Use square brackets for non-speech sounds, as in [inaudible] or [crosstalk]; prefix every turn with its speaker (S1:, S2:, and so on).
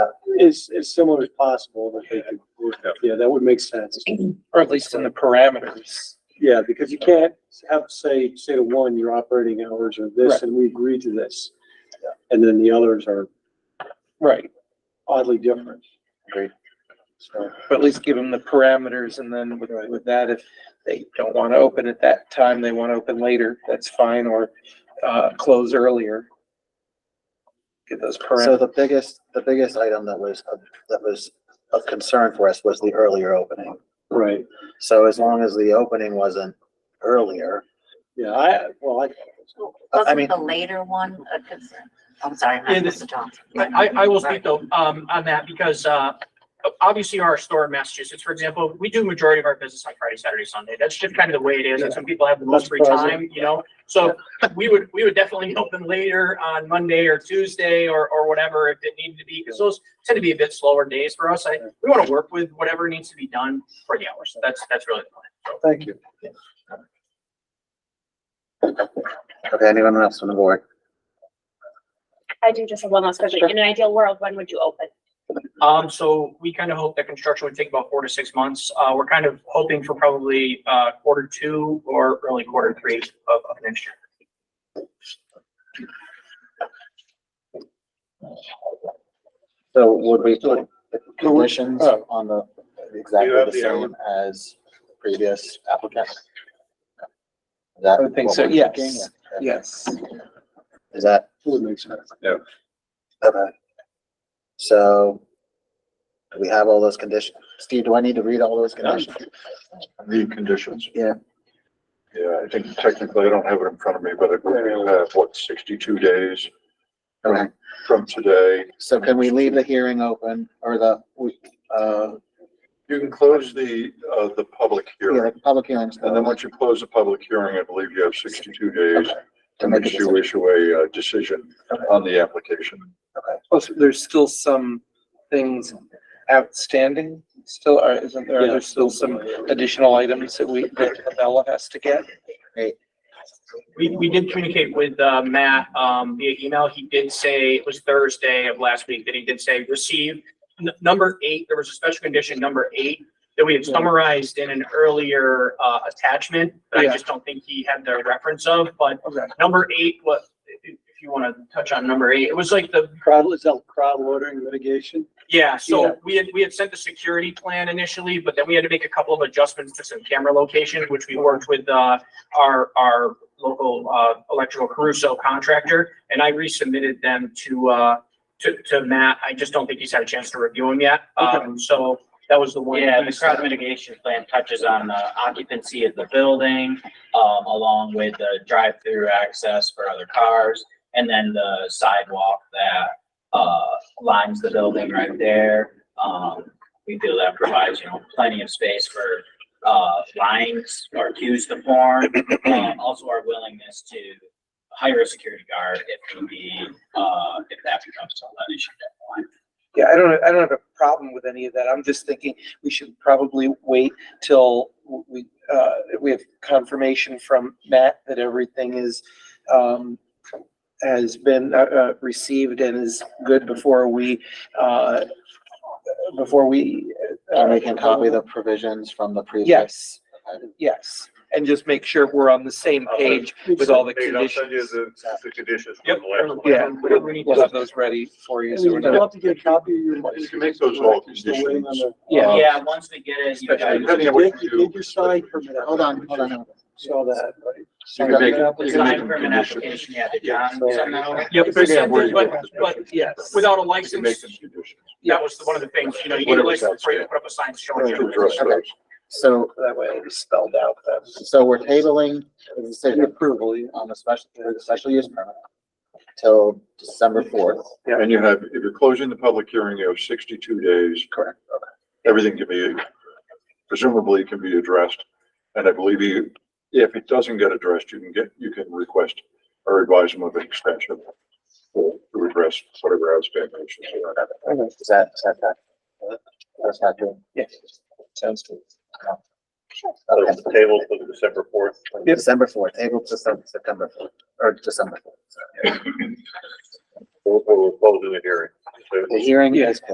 S1: as, as similar as possible that they could, yeah, that would make sense.
S2: Or at least in the parameters.
S1: Yeah, because you can't have, say, say to one, your operating hours are this
S2: Right.
S1: and we agree to this. And then the others are
S2: Right.
S1: oddly different.
S2: Agreed.
S1: So,
S2: But at least give them the parameters and then with, with that, if they don't want to open at that time, they want to open later, that's fine, or, uh, close earlier. Get those
S3: So
S2: parameters.
S3: the biggest, the biggest item that was, of- that was of concern for us was the earlier opening.
S1: right,
S3: So as long as the opening wasn't earlier,
S1: yeah, I, well, I,
S3: I
S4: Wasn't
S3: mean-
S4: the later one a concern? I'm sorry,
S5: Yeah,
S4: not
S5: this-
S4: Mr. Johnson.
S5: I, I will speak though, um, on that because, uh, obviously our store in Massachusetts, for example, we do majority of our business on Friday, Saturday, Sunday. That's just kind of the way it is. And some people have the most
S1: That's
S5: free
S1: present.
S5: time, you know? So we would, we would definitely [laughs] open later on Monday or Tuesday or, or whatever if it needed to be. Cause those tend to be a bit slower days for us. I, we want to work with whatever needs to be done for the hours. That's, that's really the plan. So.
S1: thank you.
S3: okay, anyone else on the board?
S6: I do just have one last question. In an ideal world, when would you open?
S5: Um, so we kind of hope that construction would take about four to six months. Uh, we're kind of hoping for probably, uh, quarter two or early quarter three of, of next year.
S3: So would we put the conditions on the, exactly
S2: uh, You have
S3: the
S2: the uh,
S3: same as previous applicant? Is that
S2: I would think
S3: what
S2: so,
S3: we're
S2: yes.
S3: thinking?
S2: Yes.
S3: Is that,
S1: Would make sense.
S3: okay. So do we have all those conditions? Steve, do I need to read all those conditions?
S7: The conditions?
S3: Yeah.
S7: Yeah, I think technically, I don't have it in front of me, but it would be, uh, what, sixty-two days
S3: Okay.
S7: from today.
S3: So can we leave the hearing open or the, we, uh,
S7: You can close the, uh, the public
S3: yeah,
S7: hearing,
S3: the public hearings?
S7: and then once you close the public hearing, I believe you have sixty-two days
S3: Okay.
S7: to make you issue a, uh, decision on the application.
S2: Plus, Oh, there's still some things outstanding, still, are- isn't there, there's still some additional items that we, that Bella has to get?
S5: We, we did communicate with, uh, Matt, um, via email. He did say, it was Thursday of last week, that he did say receive. N- Number eight, there was a special condition, number eight, that we had summarized in an earlier, uh, attachment, that I
S2: Yeah.
S5: just don't think he had the reference of, but
S2: Okay.
S5: number eight, what, if if you want to touch on number eight, it was like the
S1: Crowd, is that crowd ordering mitigation?
S5: Yeah,
S1: Yeah.
S5: so we had, we had sent the security plan initially, but then we had to make a couple of adjustments to some camera locations, which we worked with, uh, our, our local, uh, electrical Caruso contractor, and I resubmitted them to, uh, to, to Matt. I just don't think he's had a chance to review them yet. Um, so that was the one.
S8: Yeah, the
S5: piece
S8: crowd
S5: that-
S8: mitigation plan touches on the occupancy of the building, um, along with the drive-through access for other cars. And then the sidewalk that, uh, lines the building right there. Um, we feel that provides, you know, plenty of space for, uh, lines or queues to form. Um, also our willingness to hire a security guard if we need, uh, if that becomes an issue down the line.
S2: Yeah, I don't, I don't have a problem with any of that. I'm just thinking we should probably wait till we, uh, we have confirmation from Matt that everything is, um, has been, uh, uh, received and is good before we, uh, before we. uh,
S3: And we can copy the provisions from the previous.
S2: Yes, yes. And just make sure we're on the same page with all the conditions.
S7: the conditions.
S5: Yep.
S2: Yeah.
S5: Whatever we need
S2: We'll
S5: to-
S2: have those ready for you.
S1: And
S2: so we're
S1: You'd
S2: not-
S1: love to get a copy of your.
S7: You can make those all conditions.
S2: Yeah.
S8: Yeah, once we get it, you
S2: Especially-
S8: guys.
S1: You did- you did your sign permit.
S3: Hold on, hold on.
S1: Saw that, right?
S7: You can make-
S1: Sign
S7: you can make
S8: Sign
S7: them
S8: permit
S7: conditions.
S8: application, yeah, did
S1: Yeah,
S8: John
S1: so-
S8: send that over?
S5: Yep,
S7: Figure out where you
S5: but,
S7: want
S5: but
S7: them.
S2: Yes.
S5: without a
S7: You can make
S5: license,
S7: them conditions.
S5: that was one of the things, you know, you need a
S7: Whatever's
S5: license before you put up a sign showing.
S7: To address
S5: your-
S7: those.
S3: So,
S2: That way it was spelled out. that was-
S3: so we're tabling the decision
S2: Approval, yeah.
S3: on the special, for the special use permit till December fourth.
S7: And you have, if you're closing the public hearing, you have sixty-two days.
S3: Correct.
S7: Everything can be, presumably can be addressed. And I believe you, if it doesn't get addressed, you can get, you can request or advise them of an extension to address whatever outstanding issues you have.
S3: Is that, is that that? That's not doing.
S2: Yes. Sounds good.
S3: Okay,
S7: Table for December fourth.
S2: Yep.
S3: December fourth, able to Sep- September fourth, or December fourth.
S7: We'll, we'll close the hearing.
S3: The hearing
S2: Yeah.
S3: is